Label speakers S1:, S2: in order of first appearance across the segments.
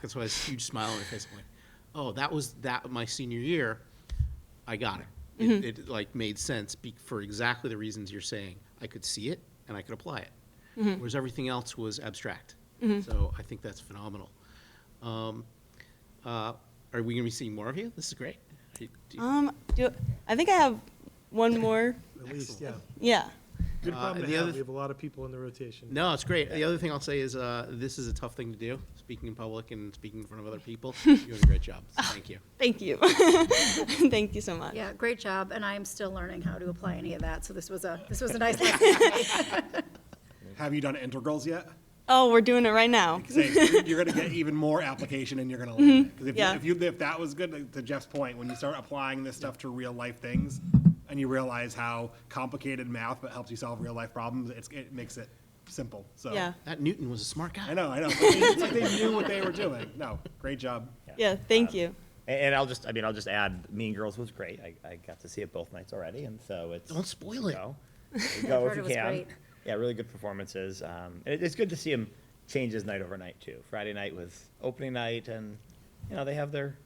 S1: That's why I had this huge smile on my face. I'm like, oh, that was that my senior year. I got it. It,
S2: Mm-hmm.
S1: it like made sense be, for exactly the reasons you're saying. I could see it and I could apply it.
S2: Mm-hmm.
S1: Whereas everything else was abstract. So I think that's phenomenal. Um, uh, are we going to be seeing more of you? This is great. Do you-
S3: Um, do, I think I have one more.
S4: At least, yeah.
S3: Yeah.
S4: Good
S1: Uh,
S4: problem
S1: and the
S4: to have.
S1: other-
S4: We have a lot of people in the rotation.
S1: No, it's great. The other thing I'll say is uh, this is a tough thing to do, speaking in public and speaking in front of other people. You're doing a great job. So thank you.
S3: Thank you. Thank you so much.
S5: Yeah, great job, and I am still learning how to apply any of that, so this was a, this was a nice lesson.
S2: Have you done integrals yet?
S3: Oh, we're doing it right now.
S2: Because they- you're going to get even more application and you're going to learn it. Because if, you-
S3: Mm-hmm. yeah.
S2: if, you, if that was good, like, to Jeff's point, when you start applying this stuff to real life things and you realize how complicated math but helps you solve real life problems, it's, it makes it simple. So
S3: Yeah.
S1: That Newton was a smart guy.
S2: I know, I know. It's like they knew what they were doing. No, great job.
S3: Yeah, thank you.
S6: And, and I'll just, I mean, I'll just add, Mean Girls was great. I, I got to see it both nights already, and so it's.
S1: Don't spoil it.
S6: you know, you Go
S5: heard
S6: if
S5: it
S6: you
S5: was
S6: can.
S5: great.
S6: Yeah, really good performances. Um, and it, it's good to see him change his night over night too. Friday night was opening night, and you know they have their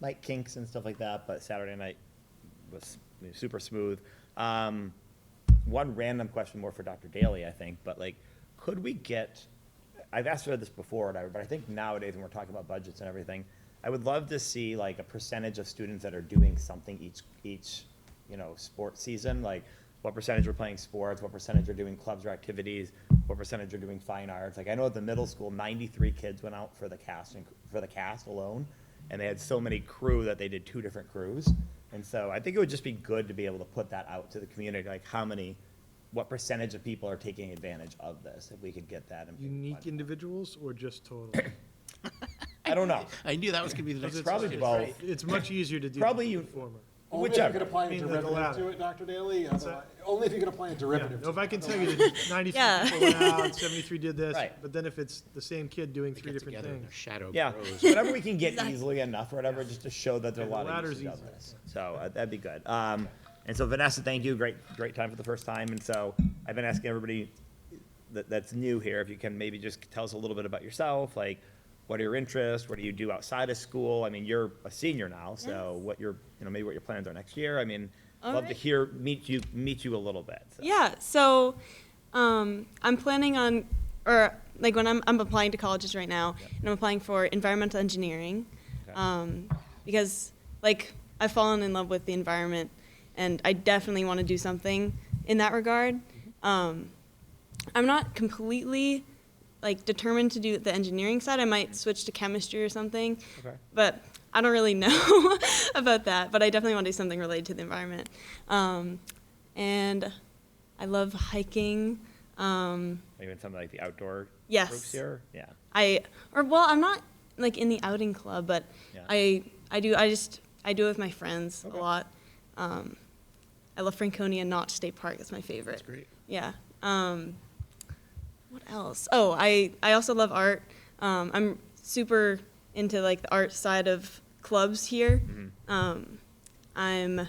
S6: night kinks and stuff like that. But Saturday night was super smooth. Um, one random question more for Dr. Daly, I think, but like, could we get, I've asked her this before, and I- but I think nowadays when we're talking about budgets and everything, I would love to see like a percentage of students that are doing something each, each, you know, sport season, like what percentage are playing sports, what percentage are doing clubs or activities, what percentage are doing fine arts. Like, I know at the middle school, ninety-three kids went out for the cast, and for the cast alone, and they had so many crew that they did two different crews. And so I think it would just be good to be able to put that out to the community, like how many, what percentage of people are taking advantage of this, if we could get that. in-
S4: Unique individuals or just total?
S6: I don't know,
S1: I knew that was going to be the next
S6: it's probably
S1: question.
S6: both,
S4: It's much easier to do
S6: Probably
S4: the
S6: you-
S4: former.
S7: Only if you could
S6: Whichever.
S7: apply a
S4: Means like
S7: derivative
S4: ladder.
S7: to it, Dr. Daly,
S4: that?
S7: otherwise, only if you could apply a
S4: Yeah,
S7: derivative
S4: no, if
S7: to
S4: I
S7: it.
S4: can tell you that ninety-three
S3: Yeah.
S4: people went out, seventy-three did this,
S6: Right.
S4: but then if it's the same kid doing three
S1: Get
S4: different
S1: together and
S4: things.
S1: their shadow
S6: yeah,
S1: grows.
S6: whatever we can get easily enough, or whatever, just to show that there are a
S4: Yeah, the
S6: lot of
S4: ladder's
S6: usage of
S4: easier,
S6: this. So uh, that'd be good. Um, and so Vanessa, thank you, great, great time for the first time, and so I've been asking everybody that, that's new here, if you can maybe just tell us a little bit about yourself, like, what are your interests, what do you do outside of school? I mean, you're a senior now, so what your, you know, maybe what your plans are next year, I mean,
S3: All
S6: love to
S3: right.
S6: hear, meet you, meet you a little bit, so.
S3: Yeah. So um, I'm planning on, or like when I'm, I'm applying to colleges right now, and I'm applying for environmental engineering
S6: Okay.
S3: um, because like I've fallen in love with the environment and I definitely want to do something in that regard.
S6: Mm-hmm.
S3: Um, I'm not completely like determined to do the engineering side. I might switch to chemistry or something.
S6: Okay.
S3: But I don't really know about that. But I definitely want to do something related to the environment. Um, and I love hiking. Um,
S6: Even something like the outdoor
S3: Yes.
S6: groups here, yeah.
S3: I or well, I'm not like in the outing club, but
S6: Yeah.
S3: I I do I just I do it with my friends
S6: Okay.
S3: a lot. Um, I love Franconia Notch State Park. It's my favorite.
S1: That's great.
S3: Yeah. Um, what else? Oh, I, I also love art. Um, I'm super into like the art side of clubs here.
S6: Mm-hmm.
S3: Um, I'm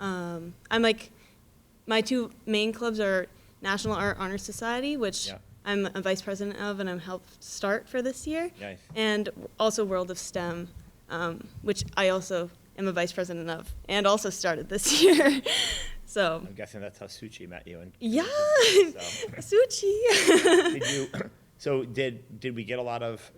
S3: um, I'm like my two main clubs are National Art Honor Society, which
S6: Yeah.
S3: I'm a vice president of and I'm helped start for this year,
S6: Nice.
S3: and also World of STEM, um, which I also am a vice president of and also started this year. so
S6: I'm guessing that's how Suchi met you and.
S3: yeah,
S6: So.
S3: Suchi.
S6: Did you, so did, did we get a lot of,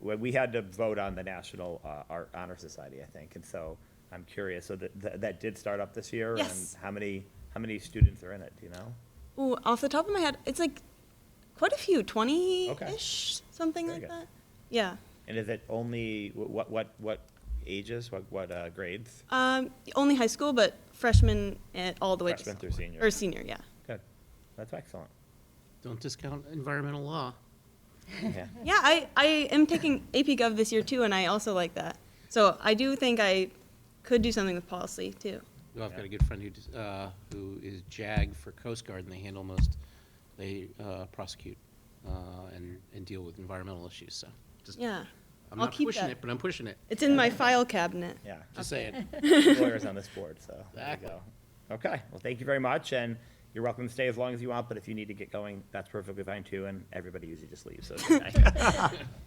S6: well, we had to vote on the National uh, Art Honor Society, I think, and so I'm curious, so that- that, that did start up this year?
S3: Yes.
S6: And how many, how many students are in it, do you know?
S3: Ooh, off the top of my head, it's like quite a few,
S6: Okay.
S3: twenty-ish, something
S6: Very
S3: like
S6: good.
S3: that. Yeah.
S6: And is it only, wh- what, what, what ages, what, what uh, grades?
S3: Um, only high school, but freshman and all the way
S6: Freshman
S3: to
S6: through
S3: sophomore.
S6: senior.
S3: Or senior, yeah.
S6: Good, that's excellent,
S1: Don't discount environmental law.
S6: yeah.
S3: Yeah, I, I am taking AP Gov this year too, and I also like that. So I do think I could do something with policy too.
S1: Well, I've got a good friend who, does- uh, who is JAG for Coast Guard, and they handle most, they, uh, prosecute, uh, and, and deal with environmental issues, so. just-
S3: Yeah.
S1: I'm
S3: I'll
S1: not
S3: keep
S1: pushing
S3: that.
S1: it, but I'm pushing it,
S3: It's in my file cabinet.
S6: Yeah,
S1: just saying.
S6: lawyers on this board, so there you
S1: Exactly.
S6: go. Okay, well, thank you very much, and You're welcome to stay as long as you want, but if you need to get going, that's perfectly fine too, and everybody usually just leaves, so it's good night.